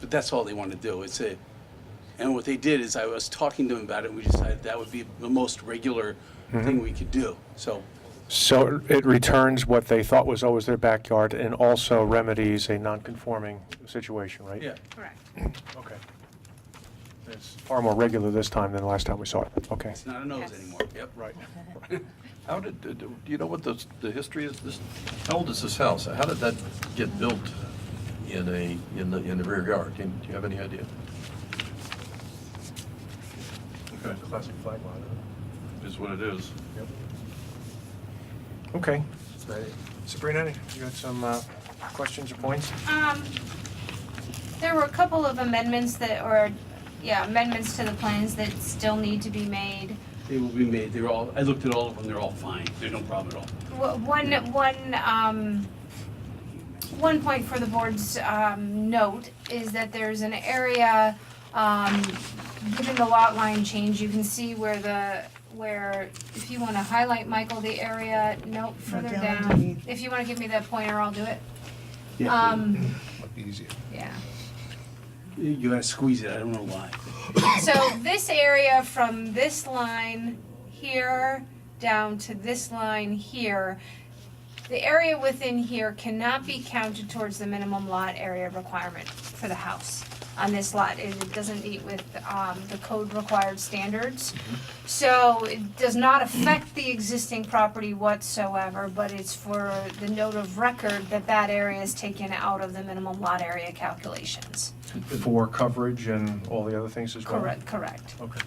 But that's all they want to do. It's a, and what they did is I was talking to them about it. We decided that would be the most regular thing we could do. So So it returns what they thought was always their backyard and also remedies a non-conforming situation, right? yeah, Correct. Okay. It's far more regular this time than last time we saw it. Okay. it's not a nose anymore. Yep. Right. How did, do- do you know what the, the history is? This, how old is this house? How did that get built in a, in the, in the rear yard? Do you- do you have any idea? Okay, Classic flag lot. is what it is. Okay. Sabrina, you had some uh, questions or points? Um, there were a couple of amendments that, or, yeah, amendments to the plans that still need to be made. They will be made. They're all, I looked at all of them. They're all fine. There's no problem at all. Wh- One, one, um, one point for the board's, um, note is that there's an area, um, given the lot line change, you can see where the, where, if you wanna highlight, Michael, the area, nope, further down down. underneath. If you wanna give me that pointer, I'll do it. Yeah. Um, Might be easier. yeah. You- You gotta squeeze it. I don't know why. So this area from this line here down to this line here, the area within here cannot be counted towards the minimum lot area requirement for the house on this lot. It it doesn't meet with, um, the code required standards. So it does not affect the existing property whatsoever, but it's for the note of record that that area is taken out of the minimum lot area calculations. For coverage and all the other things as well? Correct, correct. Okay.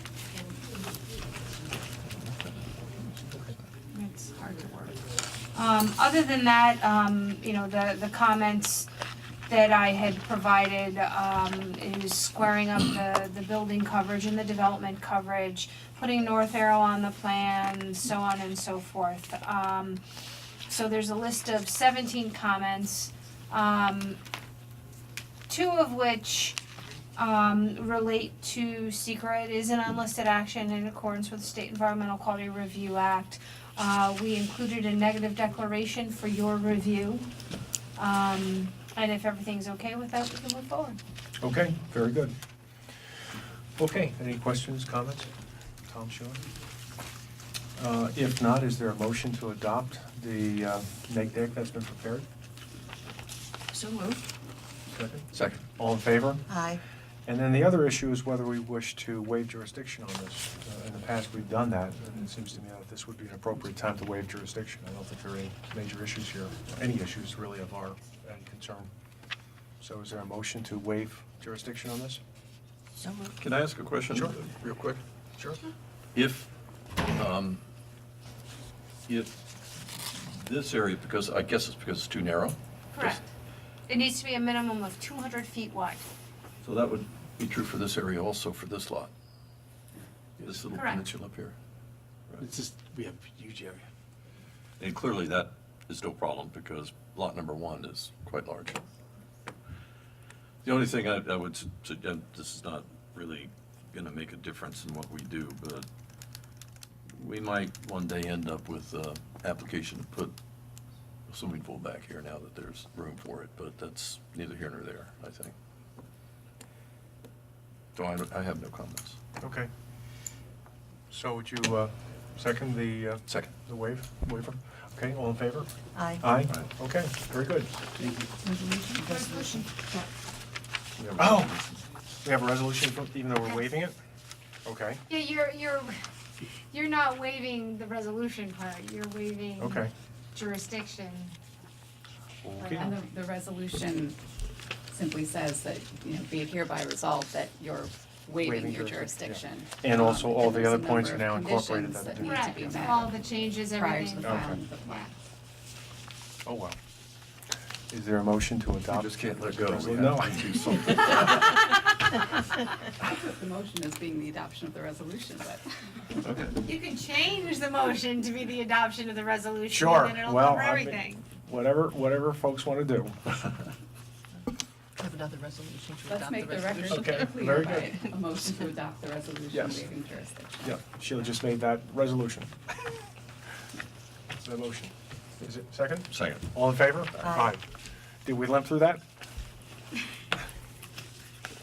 It's hard to word. Um, other than that, um, you know, the, the comments that I had provided, um, is squaring up the, the building coverage and the development coverage, putting North Arrow on the plan, so on and so forth. Um, so there's a list of seventeen comments, um, two of which, um, relate to secret It is an unlisted action in accordance with State Environmental Quality Review Act. Uh, we included a negative declaration for your review. Um, and if everything's okay with that, we can move forward. Okay, very good. Okay, any questions, comments? Tom Schuler? Uh, If not, is there a motion to adopt the uh, neg deck that's been prepared? So moved. Second. Second. All in favor? Aye. And then the other issue is whether we wish to waive jurisdiction on this. Uh, In the past, we've done that, and it seems to me that this would be an appropriate time to waive jurisdiction. I don't think there are any major issues here, any issues really of our uh, concern. So is there a motion to waive jurisdiction on this? So moved. Can I ask a question? Sure. Real quick? Sure. If, um, if this area, because I guess it's because it's too narrow. Correct. It needs to be a minimum of two hundred feet wide. So that would be true for this area also for this lot. This little Correct. peninsula up here. It's just, we have huge area. And clearly, that is no problem, because lot number one is quite large. The only thing I, I would, su- su- uh, this is not really gonna make a difference in what we do, but we might one day end up with, uh, application to put a swimming pool back here now that there's room for it, but that's neither here nor there, I think. So I, don't- I have no comments. Okay. So would you uh, second the, uh, Second. the waive, waiver? Okay, all in favor? Aye. Aye? Okay, very good. Resolution. We have a Oh. resolution. We have a resolution, for- even though we're waiving it? Okay, Yeah, you're, you're, you're not waiving the resolution part, you're waiving okay. jurisdiction. And the, the resolution simply says that, you know, be it hereby resolved that you're waiving Waiving your jurisdiction, jurisdiction. And Um, also all the there's a other points are number now of incorporated. conditions that that do- need Correct, to be met all the changes, Prior to everything. the Okay. filing of the plan. Oh, well. Is there a motion to We adopt? just can't let go. We have No. to do something. The motion is being the adoption of the resolution, but. You can change the motion to be the adoption of the resolution. Sure, And then it'll well, cover I mean- everything. Whatever, whatever folks want to do. Have another resolution to Let's adopt the make the resolution. record Okay, very clear by a motion to adopt the resolution Yes. waiving jurisdiction. Yeah, Sheila just made that resolution. The motion. Is it second? Second. All in favor? Aye. Did we limp through that?